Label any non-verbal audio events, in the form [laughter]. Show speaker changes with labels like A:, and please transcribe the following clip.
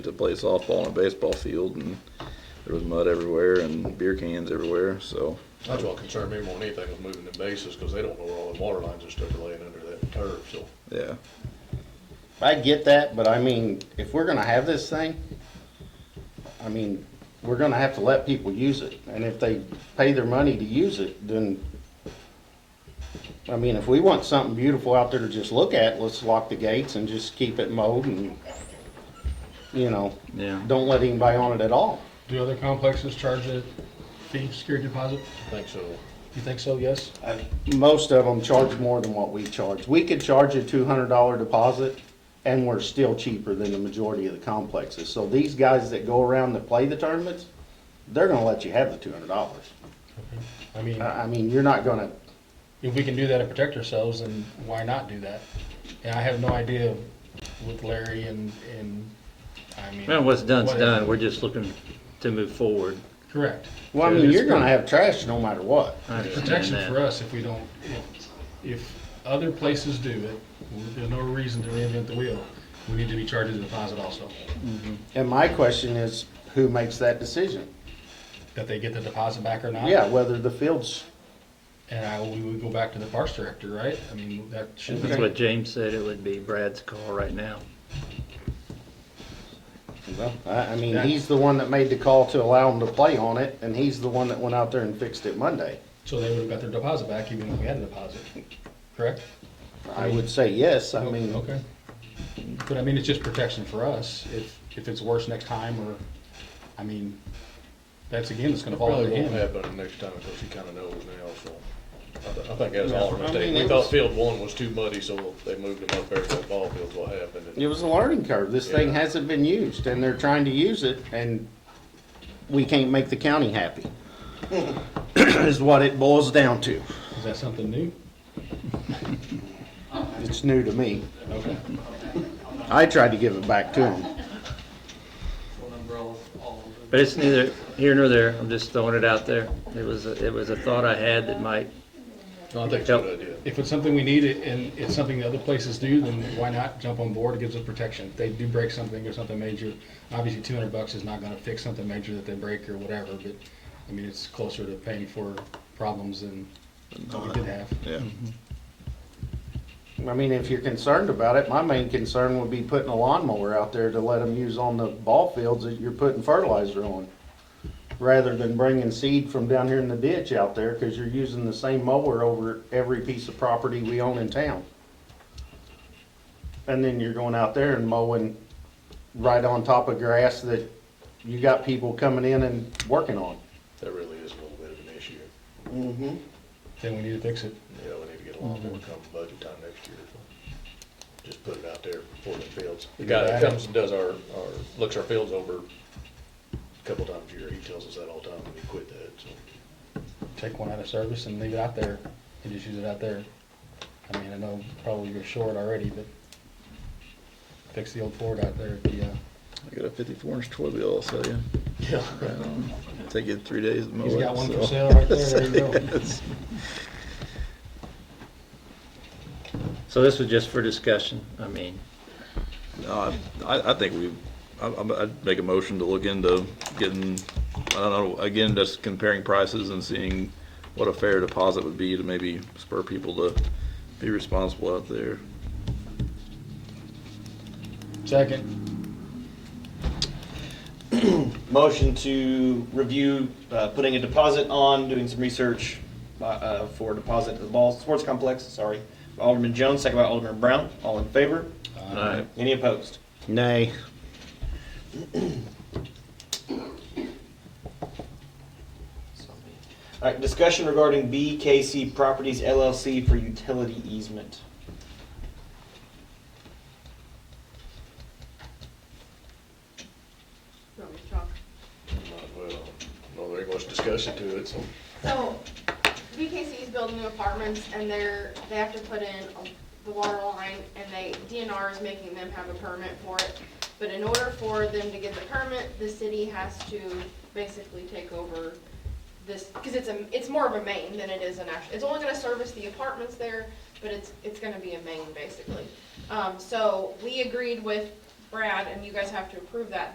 A: to play softball on a baseball field, and there was mud everywhere and beer cans everywhere. So
B: That's what concerned me more than anything was moving the bases, because they don't know where all the water lines and stuff are laying under that turf, so.
A: yeah,
C: I get that, but I mean, if we're gonna have this thing, I mean, we're gonna have to let people use it, and if they pay their money to use it, then, I mean, if we want something beautiful out there to just look at, let's lock the gates and just keep it mowed and, you know,
A: yeah.
C: don't let anybody on it at all.
D: Do other complexes charge a fee, security deposit?
B: I think so.
D: You think so, yes?
C: Uh, Most of them charge more than what we charge. We could charge a two hundred dollar deposit, and we're still cheaper than the majority of the complexes. So these guys that go around that play the tournaments, they're gonna let you have the two hundred dollars.
D: I mean,
C: I I mean, you're not gonna,
D: if we can do that and protect ourselves, then why not do that? And I have no idea with Larry and, and, I mean.
E: Well, what's done's
D: whatever.
E: done, we're just looking to move forward.
D: Correct.
C: well, I
E: Yeah,
C: mean,
E: it's
C: you're gonna have trash no matter what.
E: I understand that.
D: Protection for us if we don't, if, if other places do it, there's no reason to reinvent the wheel. We need to be charged a deposit also,
C: And my question is, who makes that decision?
D: that they get the deposit back or not.
C: Yeah, whether the field's,
D: And I, we would go back to the parks director, right? I mean, that should
E: That's
D: be,
E: what James said, it would be Brad's call right now.
C: well, I, I mean, he's the one that made the call to allow them to play on it, and he's the one that went out there and fixed it Monday.
D: so they would have got their deposit back even if we had a deposit, correct?
C: I would say yes, I
D: Oh,
C: mean.
D: Okay. But I mean, it's just protection for us, if, if it's worse next time, or, I mean, that's again, it's gonna
B: It
D: fall
B: probably
D: on
B: won't
D: him.
B: happen next time, because he kinda knows now, so. I, th- I think that's all a
C: I mean,
B: mistake.
C: it
B: We thought
C: was-
B: field one was too muddy, so they moved them up there to the ball fields, what happened. and-
C: It was a learning curve. This thing
B: Yeah.
C: hasn't been used and they're trying to use it and we can't make the county happy. [clears throat] Is what it boils down to.
D: Is that something new?
C: It's new to me.
D: Okay.
C: I tried to give it back to them.
E: But it's neither here nor there, I'm just throwing it out there. It was, a- it was a thought I had that might,
B: No, I think it's a good idea.
D: If it's something we need, and it's something the other places do, then why not jump on board, it gives us protection. If they do break something or something major, obviously two hundred bucks is not gonna fix something major that they break or whatever, but, I mean, it's closer to paying for problems than what we did have.
A: Yeah,
D: Mm-hmm.
C: I mean, if you're concerned about it, my main concern would be putting a lawnmower out there to let them use on the ball fields that you're putting fertilizer on. Rather than bringing seed from down here in the ditch out there, cause you're using the same mower over every piece of property we own in town. And then you're going out there and mowing right on top of grass that you got people coming in and working on.
B: That really is a little bit of an issue.
D: Then we need to fix it.
B: Yeah, we need to get a lot more come budget time next year. Just put it out there for the fields. The guy that comes and does our, our, looks our fields over a couple times a year, he tells us that all the time when he quit that, so.
D: take one out of service and leave it out there and just use it out there. I mean, I know probably you're short already, but fix the old Ford out there at the, uh,
A: I got a 54 inch toy wheel. I'll sell you.
B: Yeah.
A: Um, take it three days to mow
D: he's
A: it,
D: got one for
A: so.
D: sale right there, there you
A: [laughs]
D: go.
A: Yes.
E: so this was just for discussion, I mean.
A: No, I, I think we, I, I'm- I'd make a motion to look into getting, I don't know, again, just comparing prices and seeing what a fair deposit would be to maybe spur people to be responsible out there.
D: Second,
F: Motion to review, uh, putting a deposit on, doing some research, uh, uh, for deposit to the ball, sports complex, sorry. Alderman Jones, second by Alderman Brown, all in favor?
E: Alright.
F: Any opposed?
C: Nay.
F: All right, discussion regarding BKC Properties LLC for utility easement.
G: You want me to talk?
B: Might as well. No, there ain't much discussion to it, so.
G: So, BKC is building new apartments and they're, they have to put in the water line and they, DNR is making them have a permit for it. But in order for them to get the permit, the city has to basically take over this, because it's a, it's more of a main than it is an actual, it's only gonna service the apartments there, but it's, it's gonna be a main basically. Um, so we agreed with Brad and you guys have to approve that,